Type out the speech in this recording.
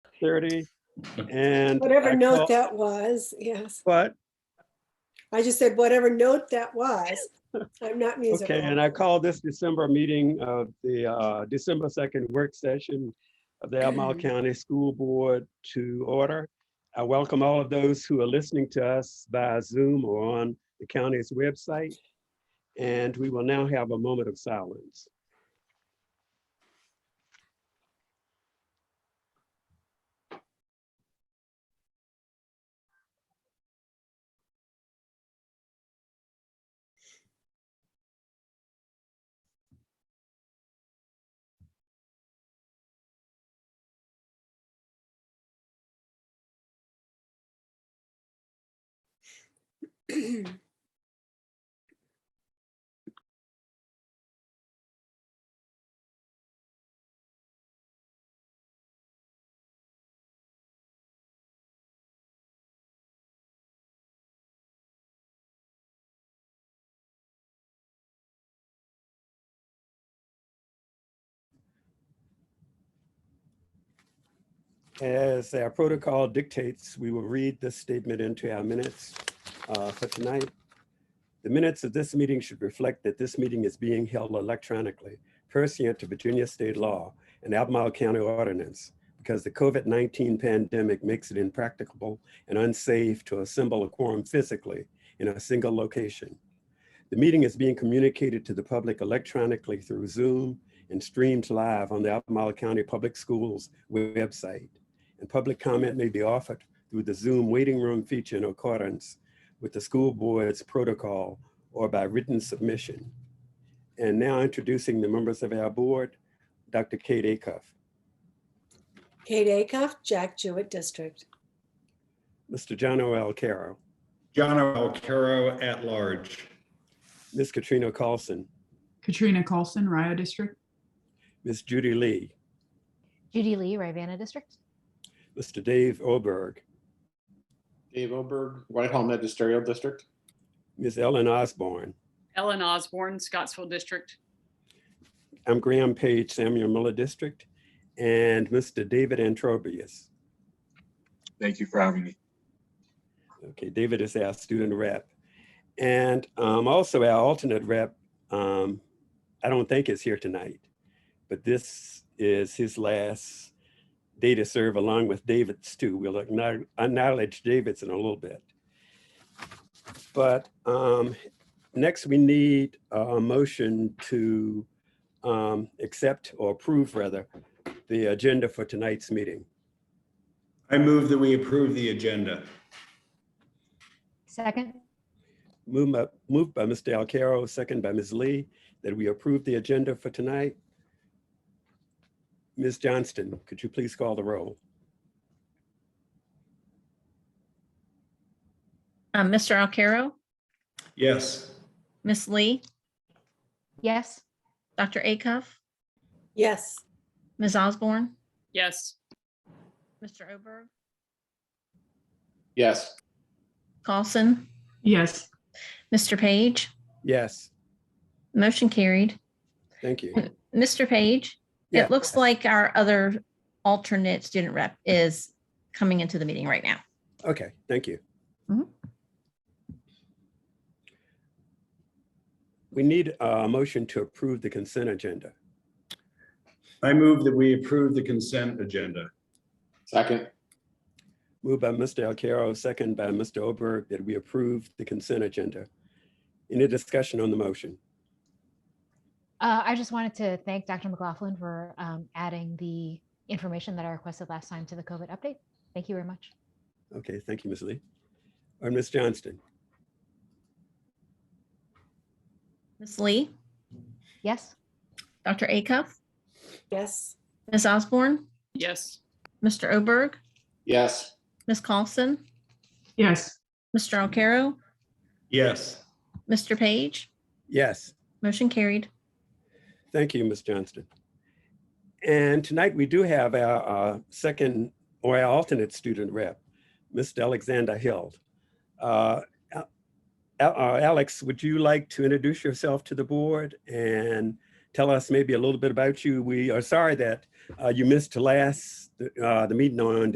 thirty, and. I Whatever call- note that was, yes. What? I just said whatever note that was. I'm not musical. Okay, and I call this December meeting of the uh, December 2nd work session of the Albemarle Mm-hmm. County School Board to order. I welcome all of those who are listening to us via Zoom or on the county's website. And we will now have a moment of silence. As our protocol dictates, we will read this statement into our minutes uh, for tonight. The minutes of this meeting should reflect that this meeting is being held electronically pursuant to Virginia state law and Albemarle County ordinance because the COVID-19 pandemic makes it impracticable and unsafe to assemble a quorum physically in a single location. The meeting is being communicated to the public electronically through Zoom and streamed live on the Albemarle County Public Schools website. And public comment may be offered through the Zoom waiting room feature in accordance with the school board's protocol or by written submission. And now introducing the members of our board, Dr. Kate Acuff, Kate Acuff, Jack Jewett District. Mr. John O.L. Carroll, John Alcaro at large. Ms. Katrina Carlson, Katrina Colson, Rio District. Ms. Judy Lee, Judy Lee, Rivanna District. Mr. Dave Oberg, Dave Oberg, Whitehall Magisterial District. Ms. Ellen Osborne, Ellen Osborne, Scottsville District. I'm Graham Page, Samuel Miller District, and Mr. David Antrobius. Thank you for having me. Okay, David is our student rep. And um, also our alternate rep, um, I don't think is here tonight, but this is his last day to serve along with David's too. We'll acknow- acknowledge David's in a little bit. But um, next we need a motion to um, accept or approve rather, the agenda for tonight's meeting. I move that we approve the agenda. Second, Moved by, moved by Mr. Alcarro, second by Ms. Lee, that we approve the agenda for tonight. Ms. Johnston, could you please call the roll? Um, Mr. Alcarro, Yes. Miss Lee, yes. Dr. Acuff, Yes, Ms. Osborne, Yes, Mr. Oberg, Yes, Carlson, Yes, Mr. Page, Yes, motion carried. thank you. Mr. Page, Yeah. it looks like our other alternate student rep is coming into the meeting right now. Okay, thank you. Mhm. We need a motion to approve the consent agenda. I move that we approve the consent agenda. second, Moved by Mr. Alcarro, second by Mr. Oberg, that we approve the consent agenda. Any discussion on the motion? Uh, I just wanted to thank Dr. McLaughlin for um, adding the information that I requested last time to the COVID update. Thank you very much. Okay, thank you, Ms. Lee. Or Ms. Johnston? Miss Lee, Yes, Dr. Acuff, yes, Ms. Osborne, yes, Mr. Oberg, yes, Ms. Carlson, yes, Mr. Alcarro, Yes. Mr. Page, Yes, motion carried. thank you, Ms. Johnston. And tonight we do have our uh, second or our alternate student rep, Mr. Alexander Hill. Uh, Al- uh, Alex, would you like to introduce yourself to the board and tell us maybe a little bit about you? We are sorry that uh, you missed last, uh, the meeting on